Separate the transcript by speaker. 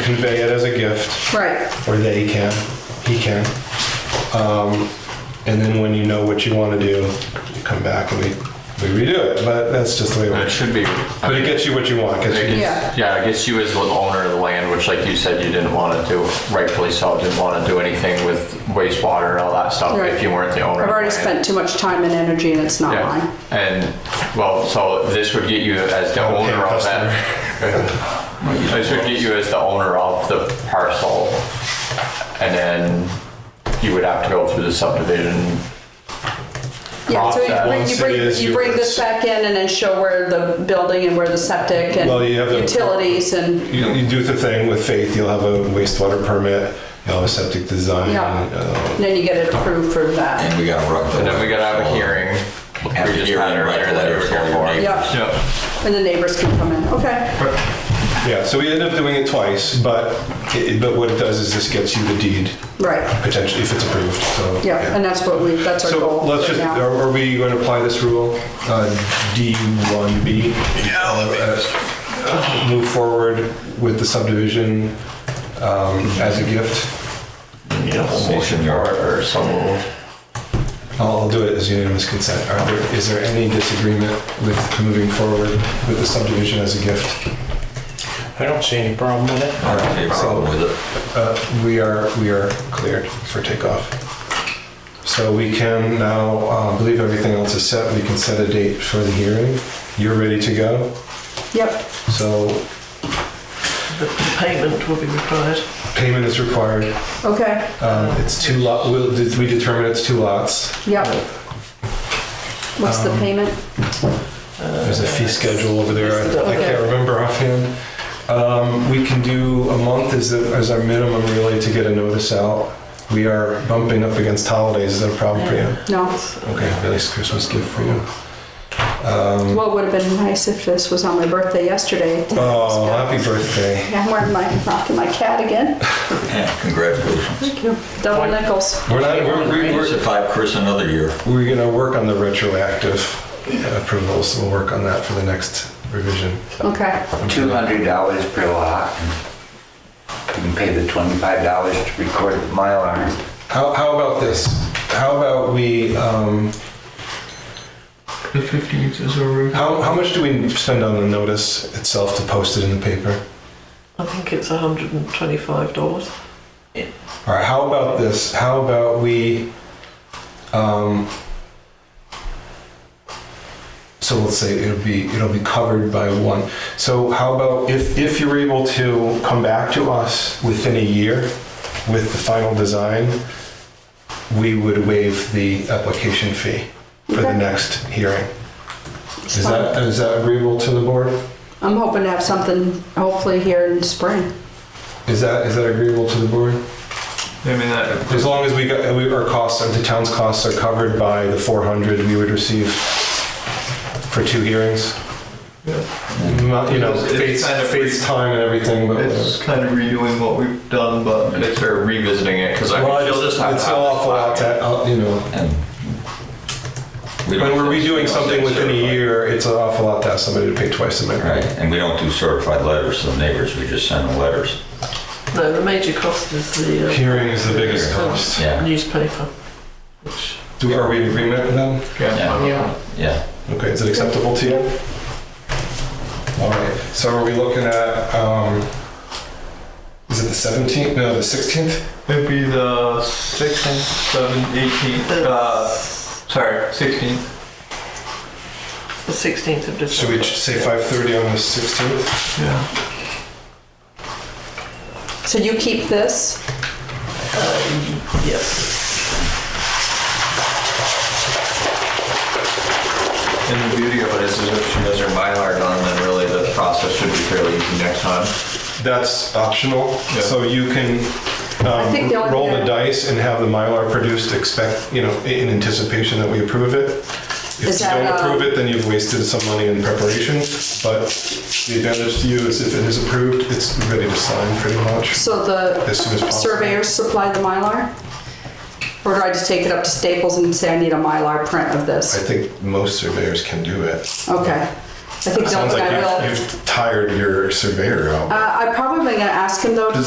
Speaker 1: convey it as a gift,
Speaker 2: Right,
Speaker 1: or they can, he can. Um, and then when you know what you want to do, you come back and we, we redo it. But that's just the way it
Speaker 3: It
Speaker 1: works.
Speaker 3: should be.
Speaker 1: But it gets you what you want. Gets you,
Speaker 2: Yeah.
Speaker 3: Yeah, I guess you as the owner of the land, which like you said, you didn't want to do, rightfully so, didn't want to do anything with wastewater and all that stuff
Speaker 2: Right.
Speaker 3: Oh, if you weren't the
Speaker 2: I've
Speaker 3: owner. of the
Speaker 2: already
Speaker 3: land.
Speaker 2: spent too much time and energy and it's not
Speaker 3: Yeah,
Speaker 2: mine.
Speaker 3: and, well, so this would get you as the
Speaker 1: Okay,
Speaker 3: owner of that. This would get you as the owner of the parcel, and then you would have to go through the subdivision.
Speaker 2: Yeah, so
Speaker 3: Process.
Speaker 2: you bring, you
Speaker 1: Once it is
Speaker 2: bring, you bring this
Speaker 1: yours.
Speaker 2: back in and then show where the building and where the septic and
Speaker 1: Well, you have the-
Speaker 2: utilities and,
Speaker 1: you, you do the thing with faith. You'll have a wastewater permit. You'll have a septic design.
Speaker 2: Yeah.
Speaker 1: uh,
Speaker 2: and then you get it approved for that.
Speaker 4: And we gotta rock the.
Speaker 3: And then we gotta have a hearing.
Speaker 4: Have
Speaker 3: We
Speaker 4: a
Speaker 3: just
Speaker 4: hearing,
Speaker 3: had
Speaker 4: write
Speaker 3: earlier
Speaker 4: the
Speaker 3: that you
Speaker 4: letter
Speaker 3: were
Speaker 4: for
Speaker 3: here
Speaker 4: your
Speaker 3: for.
Speaker 4: neighbor.
Speaker 2: Yeah,
Speaker 3: Yep.
Speaker 2: and the neighbors can come in, okay.
Speaker 1: Yeah, so we end up doing it twice, but it, but what it does is this gets you the deed
Speaker 2: Right,
Speaker 1: potentially if it's approved. So
Speaker 2: yeah, and that's what we, that's our
Speaker 1: so
Speaker 2: goal
Speaker 1: let's just
Speaker 2: right now.
Speaker 1: are, are we going to apply this rule uh, D one B? Uh, Move forward with the subdivision um, as a gift.
Speaker 4: Motion, your,
Speaker 3: Or so moved.
Speaker 1: I'll, I'll do it as unanimous consent. Are there, is there any disagreement with moving forward with the subdivision as a gift?
Speaker 5: I don't see any problem with it.
Speaker 4: our problem with it.
Speaker 1: Uh, We are, we are cleared for takeoff. So we can now, uh, I believe everything else is set, we can set a date for the hearing. You're ready to go,
Speaker 2: Yep,
Speaker 1: so
Speaker 6: payment will be required.
Speaker 1: payment is required.
Speaker 2: okay,
Speaker 1: Um, It's two lot, we'll- did we determine it's two lots?
Speaker 2: yep. What's the payment?
Speaker 1: There's a fee schedule over there, I- I
Speaker 2: Okay.
Speaker 1: can't remember offhand. Um, We can do a month as, the- as our minimum really to get a notice out. We are bumping up against holidays, is that a problem for you?
Speaker 2: No,
Speaker 1: Okay, at least Christmas gift for you. Um,
Speaker 2: well, it would have been nice if this was on my birthday yesterday.
Speaker 1: Oh, happy birthday.
Speaker 2: I'm wearing my, rocking my cat again,
Speaker 4: Yeah, Congratulations.
Speaker 2: double nickels.
Speaker 1: We're not, we're, we-
Speaker 4: It's
Speaker 1: we're,
Speaker 4: a five Chris another year.
Speaker 1: we're gonna work on the retroactive approvals, we'll work on that for the next revision.
Speaker 2: Okay,
Speaker 7: two hundred dollars per lot. You can pay the twenty-five dollars to record the Mylar.
Speaker 1: How, how about this? How about we, um,
Speaker 5: The 15th is a roof.
Speaker 1: how, how much do we spend on the notice itself to post it in the paper?
Speaker 6: I think it's $125.
Speaker 1: All right, how about this? How about we, um, so let's say it'll be, it'll be covered by one. So how about if, if you're able to come back to us within a year with the final design, we would waive the application fee for the
Speaker 2: Okay.
Speaker 1: next hearing. Is
Speaker 2: fine.
Speaker 1: that, is that agreeable to the board?
Speaker 2: I'm hoping to have something hopefully here in spring.
Speaker 1: Is that, is that agreeable to the board?
Speaker 5: I mean, that,
Speaker 1: As long as we got, we, our costs, the town's costs are covered by the 400 we would receive for two hearings.
Speaker 5: Yeah.
Speaker 1: Not, You know,
Speaker 5: It's- it's
Speaker 1: face,
Speaker 5: kind of
Speaker 1: face time and everything, but.
Speaker 5: it's kind of redoing what we've done, but
Speaker 3: And it's very revisiting it because I
Speaker 1: Well,
Speaker 3: she'll just have
Speaker 1: It's
Speaker 3: to
Speaker 1: an awful lot
Speaker 3: have
Speaker 1: to, uh, you know,
Speaker 4: And we
Speaker 1: when
Speaker 4: don't-
Speaker 1: we're redoing something within a year, it's an awful lot to ask somebody to pay twice the amount.
Speaker 4: Right, and we don't do certified letters to the neighbors, we just send them letters.
Speaker 6: No, the major cost is the uh,
Speaker 1: Hearing is the biggest cost.
Speaker 4: Yeah,
Speaker 6: newspaper, which
Speaker 1: Do, are we in agreement with them?
Speaker 3: yeah.
Speaker 4: yeah, yeah.
Speaker 1: Okay, is it acceptable to you? All right, so are we looking at, um, is it the 17th? No, the 16th?
Speaker 5: it'd be the 16th, 7th, 18th, uh, sorry, 16th.
Speaker 6: the 16th of
Speaker 1: Should we
Speaker 6: December.
Speaker 1: say five thirty on the sixteenth?
Speaker 5: Yeah.
Speaker 2: So you keep this?
Speaker 6: Yes.
Speaker 3: And the beauty of it is, is if she does her Mylar done, then really the process should be fairly easy next time.
Speaker 1: That's optional, so you can um,
Speaker 2: I think the only
Speaker 1: roll
Speaker 2: thing
Speaker 1: the
Speaker 2: I-
Speaker 1: dice and have the Mylar produced, expect, you know, in anticipation that we approve it. If
Speaker 2: Is
Speaker 1: you
Speaker 2: that,
Speaker 1: don't
Speaker 2: uh,
Speaker 1: approve it, then you've wasted some money in preparation, but the advantage to you is if it is approved, it's ready to sign pretty much.
Speaker 2: So
Speaker 1: As soon as
Speaker 2: the
Speaker 1: possible.
Speaker 2: surveyors supply the Mylar? Or do I just take it up to Staples and say I need a Mylar print of
Speaker 1: I
Speaker 2: this?
Speaker 1: think most surveyors can do it.
Speaker 2: Okay. I think
Speaker 1: Sounds
Speaker 2: Doug and I will.
Speaker 1: like you've, you've tired your surveyor out.
Speaker 2: Uh, I'm probably gonna ask him though to